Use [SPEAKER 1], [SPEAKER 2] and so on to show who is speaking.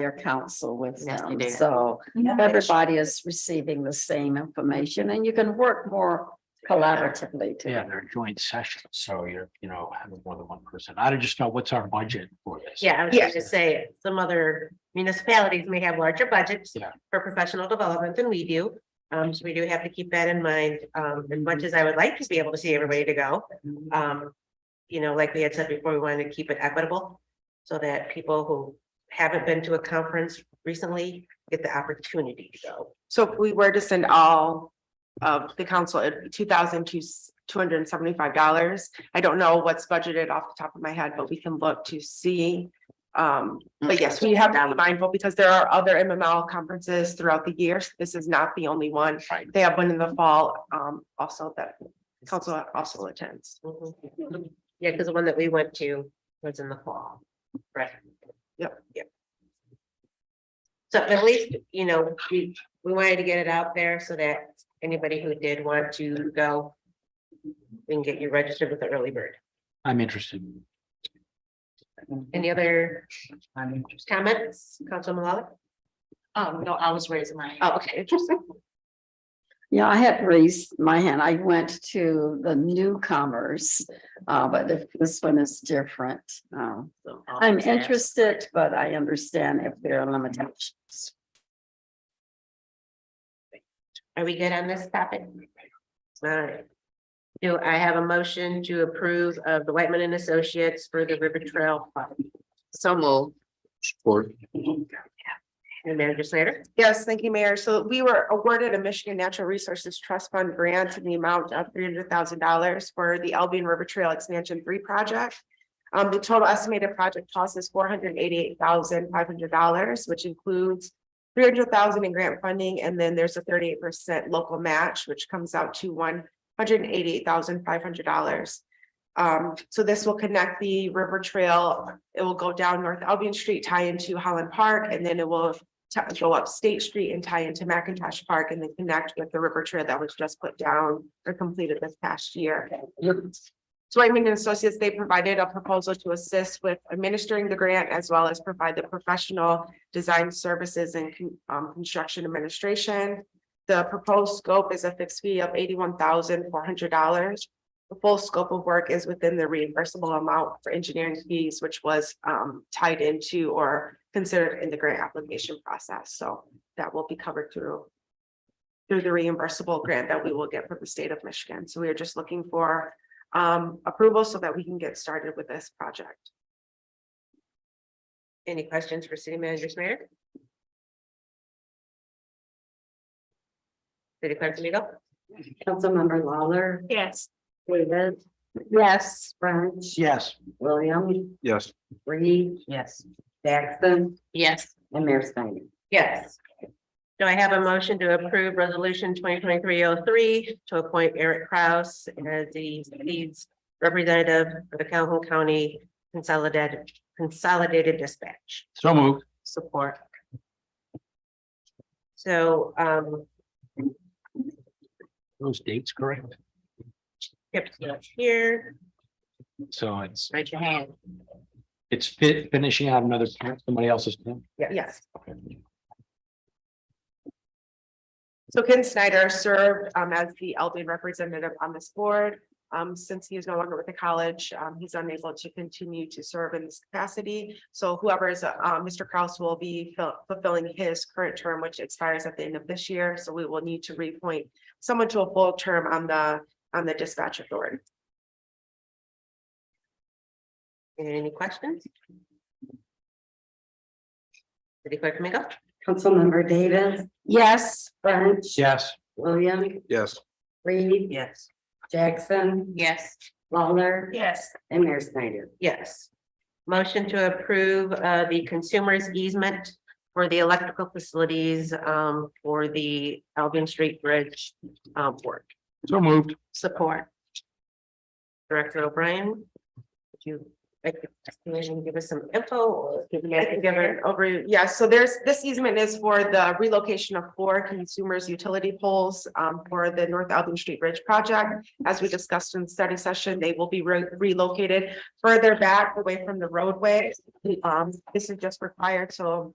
[SPEAKER 1] your counsel with
[SPEAKER 2] Yes,
[SPEAKER 1] them,
[SPEAKER 2] you do.
[SPEAKER 1] so
[SPEAKER 3] Yeah.
[SPEAKER 1] everybody is receiving the same information and you can work more collaboratively
[SPEAKER 4] Yeah,
[SPEAKER 1] together.
[SPEAKER 4] they're joint sessions, so you're, you know, having more than one person. I just know what's our budget for this.
[SPEAKER 2] Yeah, I was
[SPEAKER 3] Yeah.
[SPEAKER 2] just gonna say, some other municipalities may have larger budgets
[SPEAKER 4] Yeah.
[SPEAKER 2] for professional development than we do. Um, so we do have to keep that in mind, um, as much as I would like to be able to see everybody to go, um. You know, like we had said before, we wanted to keep it equitable, so that people who haven't been to a conference recently get the opportunity to go.
[SPEAKER 3] So if we were to send all of the council at two thousand two, two hundred and seventy-five dollars. I don't know what's budgeted off the top of my head, but we can look to see. Um, but yes, we have to be mindful because there are other MML conferences throughout the year. This is not the only one.
[SPEAKER 4] Right.
[SPEAKER 3] They have one in the fall, um, also that council also attends.
[SPEAKER 2] Mhm. Yeah, because the one that we went to was in the fall. Right.
[SPEAKER 3] Yep.
[SPEAKER 2] Yep. So at least, you know, we, we wanted to get it out there so that anybody who did want to go. We can get you registered with the early bird.
[SPEAKER 4] I'm interested.
[SPEAKER 2] Any other
[SPEAKER 4] I'm interested.
[SPEAKER 2] comments, Council Malala?
[SPEAKER 5] Um, no, I was raising my.
[SPEAKER 2] Oh, okay, interesting.
[SPEAKER 1] Yeah, I had raised my hand. I went to the newcomers, uh, but if this one is different. Um, I'm interested, but I understand if there are limitations.
[SPEAKER 2] Are we good on this topic? All right. Do I have a motion to approve of the Whitman and Associates for the River Trail? Fund? So moved.
[SPEAKER 4] Support.
[SPEAKER 2] And Manager Slater?
[SPEAKER 3] Yes, thank you, Mayor. So we were awarded a Michigan Natural Resources Trust Fund grant in the amount of three hundred thousand dollars for the Albion River Trail Expansion Three project. Um, the total estimated project cost is four hundred eighty-eight thousand five hundred dollars, which includes three hundred thousand dollars in grant funding, and then there's a thirty-eight percent local match, which comes out to one hundred eighty-eight thousand five hundred dollars. Um, so this will connect the river trail. It will go down North Albion Street, tie into Holland Park, and then it will ta- go up State Street and tie into McIntosh Park and then connect with the river trail that was just put down or completed this past year. So I mean, associates, they provided a proposal to assist with administering the grant as well as provide the professional design services and con- um, construction administration. The proposed scope is a fixed fee of eighty-one thousand four hundred dollars. The full scope of work is within the reimbursable amount for engineering fees, which was um, tied into or considered in the grant application process. So that will be covered through through the reimbursable grant that we will get from the state of Michigan. So we are just looking for um, approval so that we can get started with this project.
[SPEAKER 2] Any questions for city manager Smirnick? City clerk Domingo?
[SPEAKER 1] Councilmember Lawler,
[SPEAKER 5] Yes.
[SPEAKER 1] David. Yes. French.
[SPEAKER 4] Yes.
[SPEAKER 1] William,
[SPEAKER 4] Yes.
[SPEAKER 1] Reed. Yes. Jackson
[SPEAKER 5] Yes.
[SPEAKER 1] and Mayor Snyder.
[SPEAKER 2] Yes. Do I have a motion to approve resolution twenty twenty-three oh three to appoint Eric Kraus as the leads representative for the Calhoun County Consolidated Consolidated Dispatch?
[SPEAKER 4] So moved.
[SPEAKER 2] Support. So, um,
[SPEAKER 4] Those dates correct?
[SPEAKER 2] yep, here,
[SPEAKER 4] So it's,
[SPEAKER 2] raise your hand.
[SPEAKER 4] it's fit finishing out another, term, somebody else's. term?
[SPEAKER 3] Yes.
[SPEAKER 4] Okay.
[SPEAKER 3] So Ken Snyder served um, as the Albion representative on this board. Um, since he is no longer with the college, um, he's unable to continue to serve in this capacity. So whoever is, uh, Mr. Kraus will be fill- fulfilling his current term, which expires at the end of this year. So we will need to reappoint someone to a full term on the, on the dispatch authority.
[SPEAKER 2] Any questions? City clerk Domingo?
[SPEAKER 1] Councilmember Davis,
[SPEAKER 3] Yes.
[SPEAKER 1] French.
[SPEAKER 4] Yes.
[SPEAKER 1] William,
[SPEAKER 4] Yes.
[SPEAKER 1] Reed.
[SPEAKER 2] Yes.
[SPEAKER 1] Jackson,
[SPEAKER 5] Yes.
[SPEAKER 1] Lawler.
[SPEAKER 5] Yes.
[SPEAKER 1] And Mayor Snyder.
[SPEAKER 2] Yes. Motion to approve uh the consumer's easement for the electrical facilities um for the Albion Street Bridge um work.
[SPEAKER 4] So moved.
[SPEAKER 2] Support. Director O'Brien, would you like to give us some info or give me
[SPEAKER 3] I can
[SPEAKER 2] a
[SPEAKER 3] give
[SPEAKER 2] given?
[SPEAKER 3] an over, yeah, so there's, this easement is for the relocation of four consumers utility poles um, for the North Albion Street Bridge project. As we discussed in study session, they will be re- relocated further back away from the roadway. Um, this is just required, so